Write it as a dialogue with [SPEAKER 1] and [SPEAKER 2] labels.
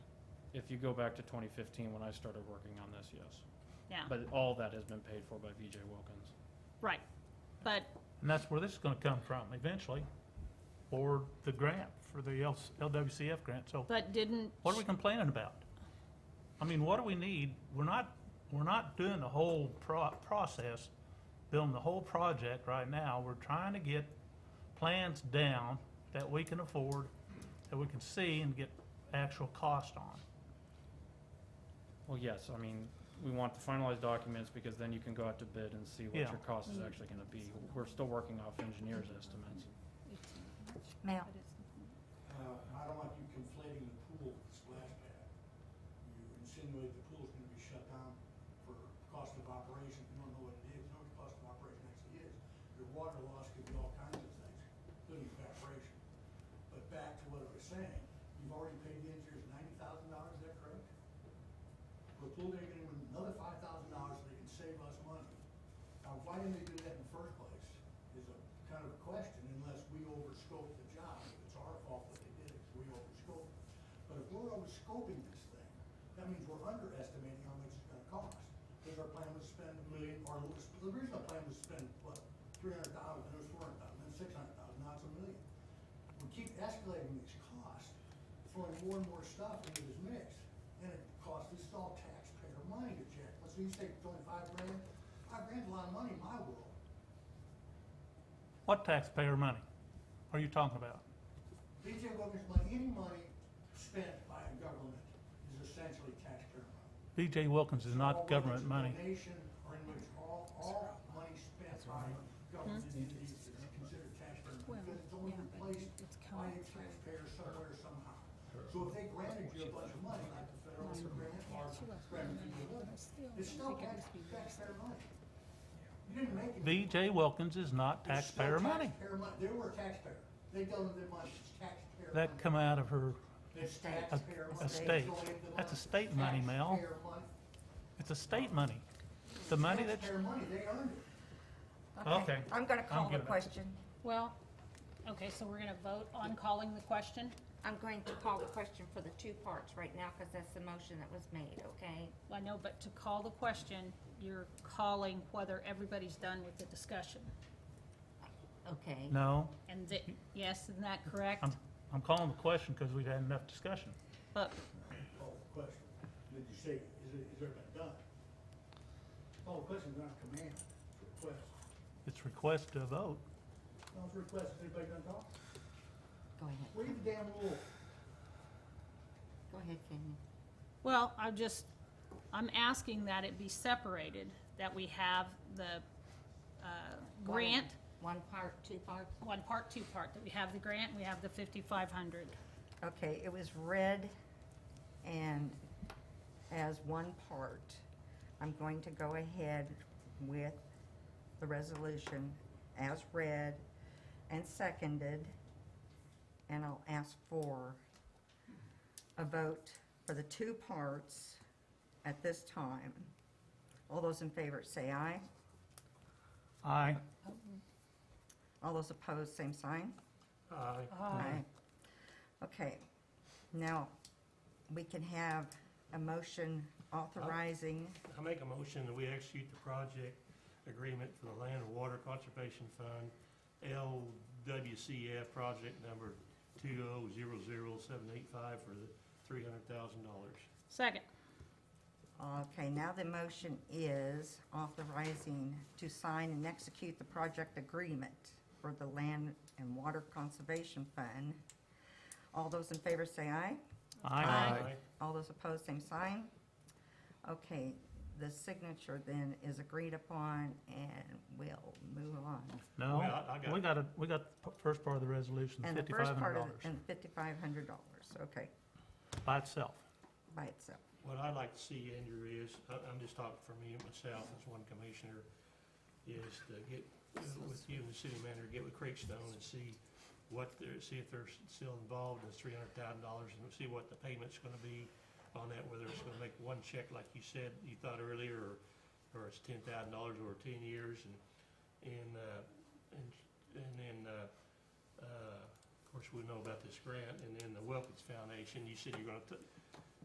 [SPEAKER 1] If you go back to 2015, when I started working on this, yes.
[SPEAKER 2] Yeah,
[SPEAKER 1] But all that has been paid for by VJ Wilkins.
[SPEAKER 2] right. But,
[SPEAKER 3] And that's where this is gonna come from eventually, or the grant for the L- LWCF grant, so
[SPEAKER 2] but didn't,
[SPEAKER 3] what are we complaining about? I mean, what do we need? We're not, we're not doing the whole pro- process, building the whole project right now. We're trying to get plans down that we can afford, that we can see and get actual cost on.
[SPEAKER 1] Well, yes, I mean, we want the finalized documents because then you can go out to bid and see what
[SPEAKER 3] Yeah.
[SPEAKER 1] your cost is actually gonna be. We're still working off engineers' estimates.
[SPEAKER 4] Ma'am,
[SPEAKER 5] Uh, I don't like you conflating the pool with the splash pad. You insinuate the pool's gonna be shut down for cost of operation, you don't know what it is, you know what the cost of operation actually is. Your water loss could be all kinds of things, including evaporation. But back to what I was saying, you've already paid the engineers ninety thousand dollars, is that correct? For a pool, they're gonna win another five thousand dollars, so they can save us money. Now, why didn't they do that in the first place is a kind of a question unless we overscoped the job. If it's our fault that they did it, we overscoped. it. But if we're overscoping this thing, that means we're underestimating how much it's gonna cost. Because our plan was to spend a million, or it was- the original plan was to spend, what, three hundred thousand, then it was four hundred thousand, then six hundred thousand, now it's a million. We keep escalating these costs, throwing more and more stuff into this mix. And it costs, this is all taxpayer money to check. Let's say you say twenty-five grand, five grand's a lot of money in my world.
[SPEAKER 3] What taxpayer money are you talking about?
[SPEAKER 5] BJ Wilkins money, any money spent by a government is essentially taxpayer money.
[SPEAKER 3] BJ Wilkins is
[SPEAKER 5] All
[SPEAKER 3] not
[SPEAKER 5] whether it's
[SPEAKER 3] government
[SPEAKER 5] a
[SPEAKER 3] money.
[SPEAKER 5] Donation or in which all, all money spent by government entities is considered taxpayer money, because it's only replaced by a taxpayer somewhere somehow. So if they granted you a bunch of money, like the federal grant or granted you a little, it's still tax- taxpayer money. You didn't make it.
[SPEAKER 3] BJ Wilkins is not
[SPEAKER 5] It's still
[SPEAKER 3] taxpayer money.
[SPEAKER 5] Taxpayer money, they were a taxpayer, they donated their money, it's taxpayer money.
[SPEAKER 3] That come out of her,
[SPEAKER 5] It's
[SPEAKER 4] Estate.
[SPEAKER 5] taxpayer money.
[SPEAKER 3] estate.
[SPEAKER 5] It's going to the
[SPEAKER 3] That's
[SPEAKER 5] money.
[SPEAKER 3] estate money, Mel.
[SPEAKER 5] Taxpayer money.
[SPEAKER 3] it's a state money. The money that's,
[SPEAKER 5] Taxpayer money, they earned it.
[SPEAKER 3] Okay.
[SPEAKER 4] I'm gonna call the
[SPEAKER 3] giving it.
[SPEAKER 4] question.
[SPEAKER 2] well, okay, so we're gonna vote on calling the question?
[SPEAKER 4] I'm going to call the question for the two parts right now, because that's the motion that was made, okay?
[SPEAKER 2] Well, I know, but to call the question, you're calling whether everybody's done with the discussion.
[SPEAKER 4] Okay.
[SPEAKER 3] no,
[SPEAKER 2] And that, yes, isn't that correct?
[SPEAKER 3] I'm, I'm calling the question because we've had enough discussion.
[SPEAKER 2] But,
[SPEAKER 5] Call the question. Did you say, is it, is there been done? Call the question, not a command, it's a request.
[SPEAKER 3] It's request to vote.
[SPEAKER 5] No, it's a request, is anybody done talk?
[SPEAKER 4] Go ahead.
[SPEAKER 5] Read the damn rule.
[SPEAKER 4] Go ahead, Kenny.
[SPEAKER 2] well, I'm just, I'm asking that it be separated, that we have the, uh,
[SPEAKER 4] One-
[SPEAKER 2] grant,
[SPEAKER 4] One part, two parts?
[SPEAKER 2] one part, two part, that we have the grant, we have the fifty-five hundred.
[SPEAKER 4] Okay, it was read and as one part. I'm going to go ahead with the resolution as read and seconded. And I'll ask for a vote for the two parts at this time. All those in favor say aye.
[SPEAKER 3] Aye.
[SPEAKER 4] All those opposed, same sign.
[SPEAKER 6] Uh,
[SPEAKER 3] Aye.
[SPEAKER 4] Aye. Okay, now, we can have a motion authorizing,
[SPEAKER 6] I make a motion that we execute the project agreement for the Land and Water Conservation Fund, LWCF project number two oh zero zero seven eight five for the three hundred thousand dollars.
[SPEAKER 2] Second,
[SPEAKER 4] okay, now the motion is authorizing to sign and execute the project agreement for the Land and Water Conservation Fund. All those in favor say aye.
[SPEAKER 3] Aye.
[SPEAKER 4] All those opposed, same sign. Okay, the signature then is agreed upon and we'll move on.
[SPEAKER 3] No,
[SPEAKER 6] Well, I- I got
[SPEAKER 3] we
[SPEAKER 6] it.
[SPEAKER 3] got a, we got the p- first part of the resolution,
[SPEAKER 4] And the
[SPEAKER 3] fifty-five
[SPEAKER 4] first
[SPEAKER 3] hundred
[SPEAKER 4] part of
[SPEAKER 3] dollars
[SPEAKER 4] And fifty-five hundred dollars, okay,
[SPEAKER 3] by itself.
[SPEAKER 4] by itself.
[SPEAKER 6] What I'd like to see, Andrew, is, I- I'm just talking for me and myself as one commissioner, is to get with you and the city manager, get with Creekstone and see what they're, see if they're still involved in the three hundred thousand dollars and see what the payment's gonna be on that, whether it's gonna make one check like you said, you thought earlier, or, or it's ten thousand dollars over ten years and, and, uh, and, and then, uh, uh, of course, we know about this grant and then the Wilkins Foundation, you said you're gonna t-